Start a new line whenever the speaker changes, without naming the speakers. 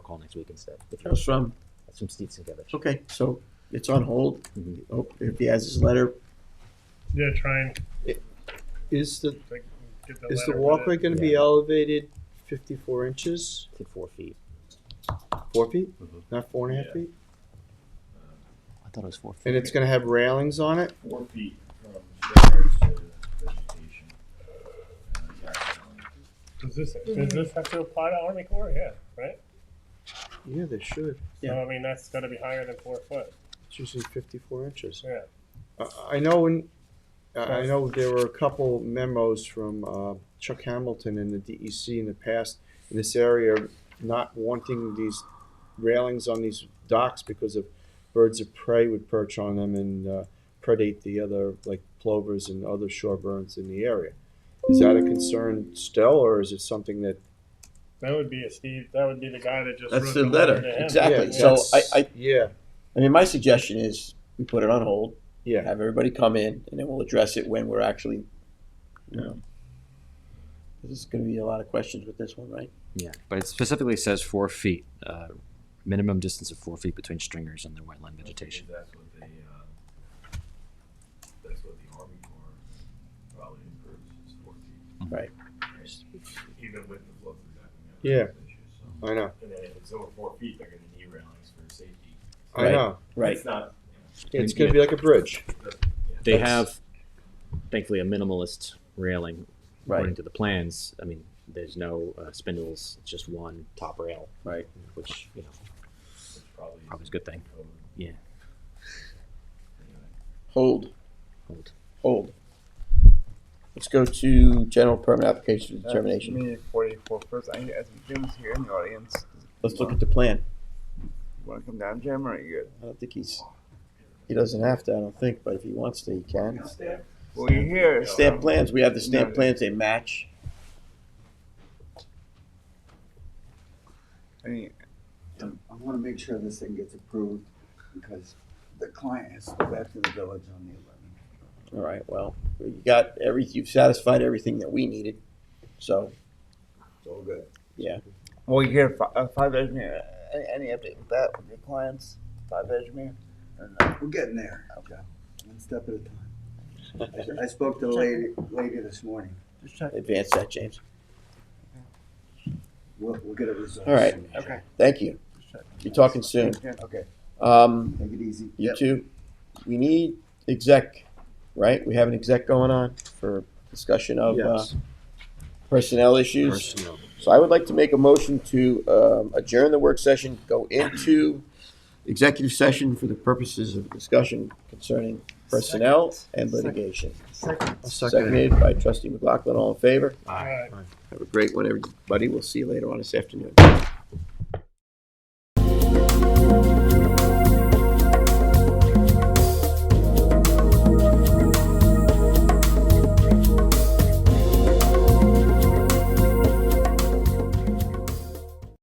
call next week instead. If
That's
you-
from,
That's from Steve Sienkiewicz.
okay, so it's on hold.
Mhm.
Oh, If he has his letter,
Yeah, try and
Is the,
like, get the
is the
letter with
walkway
it.
gonna be
Yeah.
elevated fifty-four inches,
I think four feet.
four feet,
Mhm.
not four and a half
Yeah.
feet?
I thought it was four feet.
And it's gonna have railings on it?
four feet from stairs to vegetation. Uh, yeah,
Does this, does this have to apply to Army Corps? Yeah, right?
Yeah, they should.
So,
Yeah.
I mean, that's gotta be higher than four foot,
It's usually fifty-four inches.
yeah.
I- I know in, I I know there were a couple memos from uh, Chuck Hamilton and the DEC in the past in this area not wanting these railings on these docks because of birds of prey would perch on them and uh, predate the other, like plovers and other shorebirds in the area. Is that a concern still, or is it something that?
That would be a Steve, that would be the guy that just.
That's
wrote
the letter,
to him.
exactly.
Yeah,
So I-
that's-
I-
Yeah,
I mean, my suggestion is we put it on hold,
yeah,
have everybody come in, and then we'll address it when we're actually, you know. This is gonna be a lot of questions with this one, right?
Yeah, but it specifically says four feet, uh, minimum distance of four feet between stringers and the wetland vegetation.
That's what they, uh, that's what the Army Corps probably improves is four feet.
Mm-hmm.
Right.
Even with the flow through that. we
Yeah.
have those issues, so.
I know,
And then if it's over four feet, they're gonna need railings for safety.
I
Right.
know.
Right.
It's not,
It's gonna be like a bridge.
They
That's-
have, thankfully, a minimalist railing according
Right,
to the plans. I mean, there's no uh, spindles, it's just one top rail,
right.
which, you know,
it's probably.
probably is a good thing.
code
Yeah,
anyway.
Hold,
hold.
hold. Let's go to general permit application for determination.
Maybe forty-four first. I, I think Jim's here in the audience.
Let's look at the plan.
Want to come down, Jim, or are you good?
I don't think he's, he doesn't have to, I don't think, but if he wants to, he can.
Well, you're here. so-
Stamp plans, we have the stamp plans, they match.
I mean,
I want to make sure this thing gets approved because the client has to go back to the village on the eleventh.
All right, well, you got every, you've satisfied everything that we needed, so,
It's all good.
well, you're here. Fi- uh, five Edgemere. Any, any update with that with your clients? Five Edgemere. Or no?
We're getting there.
Okay.
One step at a time. I- I spoke to the lady, lady this morning.
Just check.
advance that, James.
We'll, we'll get it resolved.
All right.
soon.
Okay.
Thank you.
Just check.
You're talking soon.
Yeah.
Okay,
Um,
take it easy.
you two, we need exec, right? We have an exec going on for discussion of, uh,
Yes.
personnel issues.
Personnel.
So I would like to make a motion to, um, adjourn the work session, go into executive session for the purposes of discussion concerning personnel and litigation.
I'll second it.
Seconded by trustee McLaughlin, all in favor?
All right.
Have a great one, everybody. We'll see you later on this afternoon.